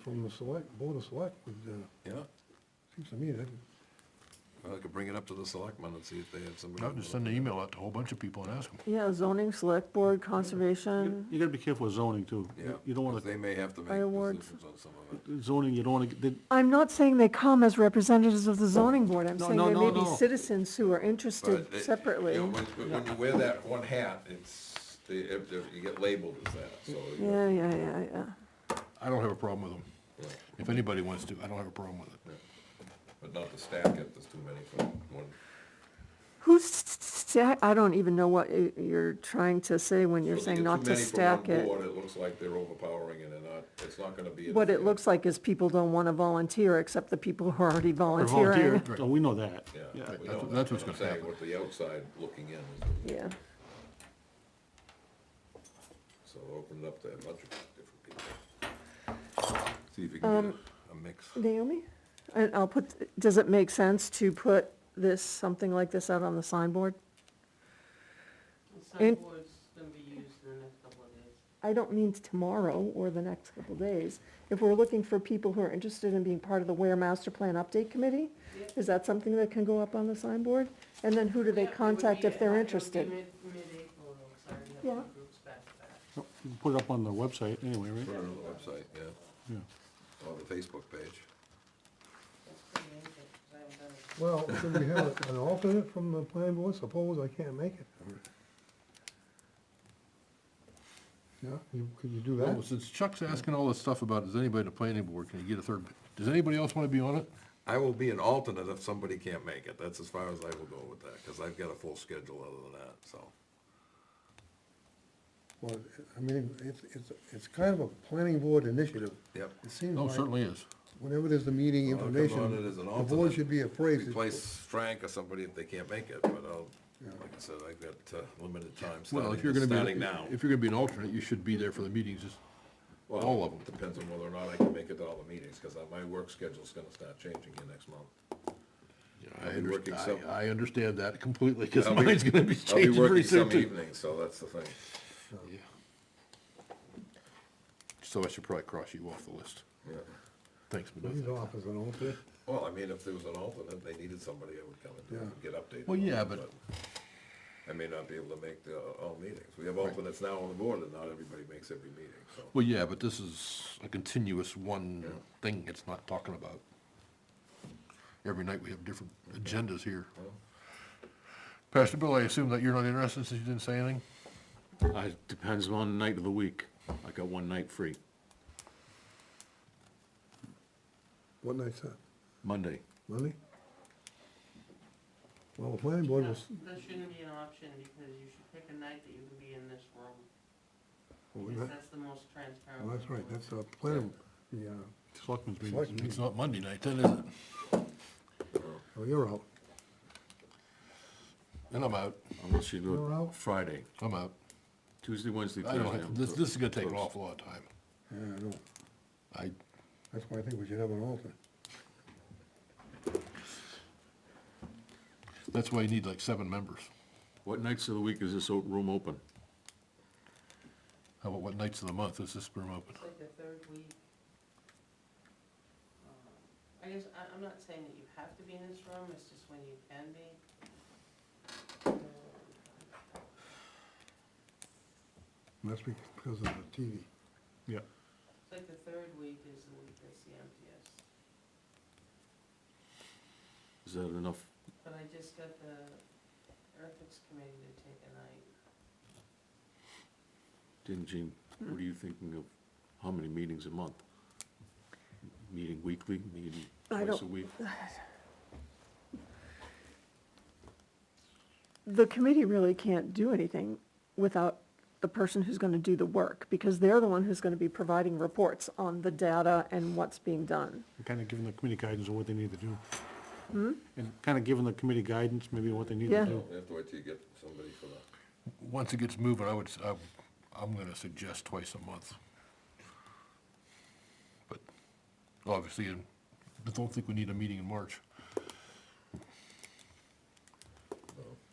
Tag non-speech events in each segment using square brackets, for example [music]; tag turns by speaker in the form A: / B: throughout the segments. A: from the select, board of select, would, uh,
B: Yeah,
A: seems to me that,
B: well, I could bring it up to the selectmen and see if they have somebody.
C: Not just send an email out to a whole bunch of people and ask them.
D: Yeah, zoning, select board, conservation,
E: You gotta be careful with zoning too.
B: Yeah,
E: You don't
B: 'cause
E: wanna,
B: they may have to make
D: Fireworks.
B: decisions on some of it.
E: zoning, you don't wanna, get- they-
D: I'm not saying they come as representatives of the zoning board, I'm
E: No,
D: saying
E: no,
D: they
E: no,
D: may be
E: no.
D: citizens who are
B: But,
D: interested
B: uh, you
D: separately.
B: know, When when you wear that one hat, it's, they- if- if you get labeled as that, so. you-
D: Yeah, yeah, yeah, yeah.
C: I don't have a problem with them. If anybody wants to, I don't have a problem with it.
B: But not to stack it, there's too many for one.
D: Who's, sta- I don't even know what y- you're trying to say when you're
B: If you
D: saying
B: get
D: not
B: too
D: to
B: many for one
D: stack it.
B: board, It looks like they're overpowering and they're not, it's not gonna be.
D: What it
B: anything.
D: looks like is people don't want to volunteer, except the people who are already
E: or
D: volunteering.
E: volunteer, oh, we know that.
B: Yeah.
E: Yeah.
B: we
C: that's-
B: don't-
C: that's what's
B: I'm
C: gonna
B: saying
C: happen.
B: What the outside looking in is,
D: Yeah,
B: so open it up to a bunch of different people. See if you can
D: Um,
B: get a- a mix.
D: Naomi, and I'll put, does it make sense to put this, something like this out on the signboard?
F: The
D: And-
F: signboard's gonna be used in the next couple of days.
D: I don't mean tomorrow or the next couple days. If we're looking for people who are interested in being part of the Ware Master Plan Update Committee, is that something that can go up on the signboard? And then who do they
F: Yeah, it would
D: contact
F: be-
D: if they're
F: it would be
D: interested?
F: mid- Mid-April, though, so I have
D: Yeah.
F: the groups back to back.
E: You can Put it up on the website anyway,
B: Put it
E: right?
B: on the website, yeah,
E: Yeah.
B: or the Facebook page.
F: That's pretty ancient, 'cause I haven't done it.
A: well, should we have an alternate from the planning board? Suppose I can't make it. Yeah, you, could you do
C: Well,
A: that?
C: Oh, since Chuck's asking all this stuff about, is anybody in the planning board, can you get a third? Does anybody else want to be on it?
B: I will be an alternate if somebody can't make it, that's as far as I will go with that, because I've got a full schedule other than that, so.
A: Well, I mean, it's, it's, it's kind of a planning board initiative.
B: Yep.
A: It seems
C: No,
A: like
C: Oh, certainly is.
A: whenever there's the meeting
B: I'll come on it
A: information,
B: as an
A: the
B: alternate.
A: board should be appraised.
B: Replace Frank or somebody if they can't make it, but I'll, like I said, I've got uh, limited time
C: Well,
B: starting,
C: if you're gonna be.
B: starting now.
C: If you're gonna be an alternate, you should be there for the meetings, just
B: Well,
C: all of 'em.
B: Depends on whether or not I can make it to all the meetings, because my work schedule's gonna start changing here next month.
C: Yeah,
B: I'll
C: I
B: be working
C: understand,
B: some-
C: I, I understand that completely, because
B: I'll be-
C: mine's
B: [laughs]
C: gonna be
B: I'll be
C: changing pretty
B: working
C: soon
B: some
C: too.
B: evenings, so that's the thing.
C: Yeah. So I should probably cross you off the list.
B: Yeah.
C: Thanks,
A: He's
C: Melissa.
A: off as an alternate.
B: Well, I mean, if there was an alternate, they needed somebody, I would come and
A: Yeah.
B: do it, get updated.
C: Well,
B: on
C: yeah,
B: it,
C: but-
B: I may not be able to make the, uh, all meetings. We have alternates now on the board, and not everybody makes every meeting, so.
C: Well, yeah, but this is a continuous one
B: Yeah.
C: thing it's not talking about. Every night we have different agendas here.
B: Well,
C: Pastor Bill, I assume that you're not interested since you didn't say anything?
G: Uh, depends on the night of the week. I got one night free,
A: What night's that?
G: Monday.
A: Monday? Well, the planning board was,
F: That- That shouldn't be an option, because you should pick a night that you can be in this room,
A: well, we-
F: because that's the most transparent.
A: well, that's
F: way
A: right,
F: to do it.
A: that's a planning, yeah,
E: Selectmen's meeting.
A: select
C: It's
A: meeting.
C: not Monday night, then, is it?
A: Oh, you're out.
C: Then I'm out,
G: Unless you
A: You're
G: do
A: out?
G: it Friday,
C: I'm out.
G: Tuesday, Wednesday,
C: I
G: Thursday.
C: don't have,
G: I'm
C: this,
G: clo-
C: this is gonna take an
G: closed.
C: awful lot of time.
A: Yeah, I know.
C: I,
A: That's why I think we should have an alternate.
C: that's why you need like seven members.
G: What nights of the week is this o- room open?
C: How about what nights of the month is this room open?
F: It's like the third week. Um, I guess, I, I'm not saying that you have to be in this room, it's just when you can be. Um,
A: Must be because of the TV.
E: Yeah.
F: It's like the third week is the week that's the emptiest.
G: Is that enough?
F: But I just got the ethics committee to take a night.
G: Didn't Gene, what are you thinking of? How many meetings a month? Meeting weekly, meeting
D: I
G: twice
D: don't-
G: a week?
D: The committee really can't do anything without the person who's gonna do the work, because they're the one who's gonna be providing reports on the data and what's being done. Hmm?
E: Kinda giving the committee guidance on what they need to do. And kinda giving the committee guidance, maybe what they need
D: Yeah.
E: to do.
B: We have to wait till you get somebody for the,
C: Once it gets moving, I would, s- I'm, I'm gonna suggest twice a month. But obviously, I don't think we need a meeting in March.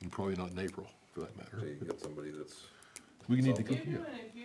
C: And probably not in April, for that
B: till
C: matter.
B: you get somebody that's,
C: We need to,
F: If
C: yeah.
F: you're doing, if um, you